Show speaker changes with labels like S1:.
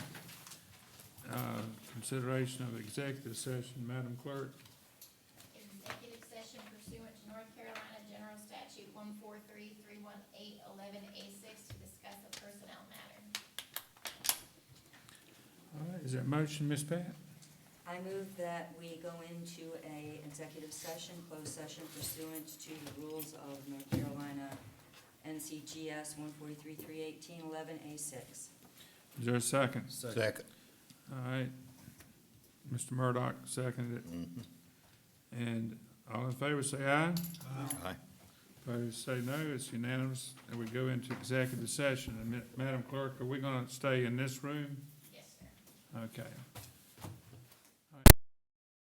S1: uh, consideration of executive session, Madam Clerk.
S2: Executive session pursuant to North Carolina General Statute one four three three one eight eleven A six to discuss a personnel matter.
S1: All right, is there a motion, Ms. Pat?
S3: I move that we go into a executive session, closed session pursuant to the rules of North Carolina NCGS one forty-three, three eighteen, eleven, A six.
S1: Is there a second?
S4: Second.
S1: All right. Mr. Murdock seconded it. And all in favor, say aye.
S4: Aye.
S1: Opposed, say no. It's unanimous, and we go into executive session. And Ma- Madam Clerk, are we gonna stay in this room?
S2: Yes, sir.
S1: Okay.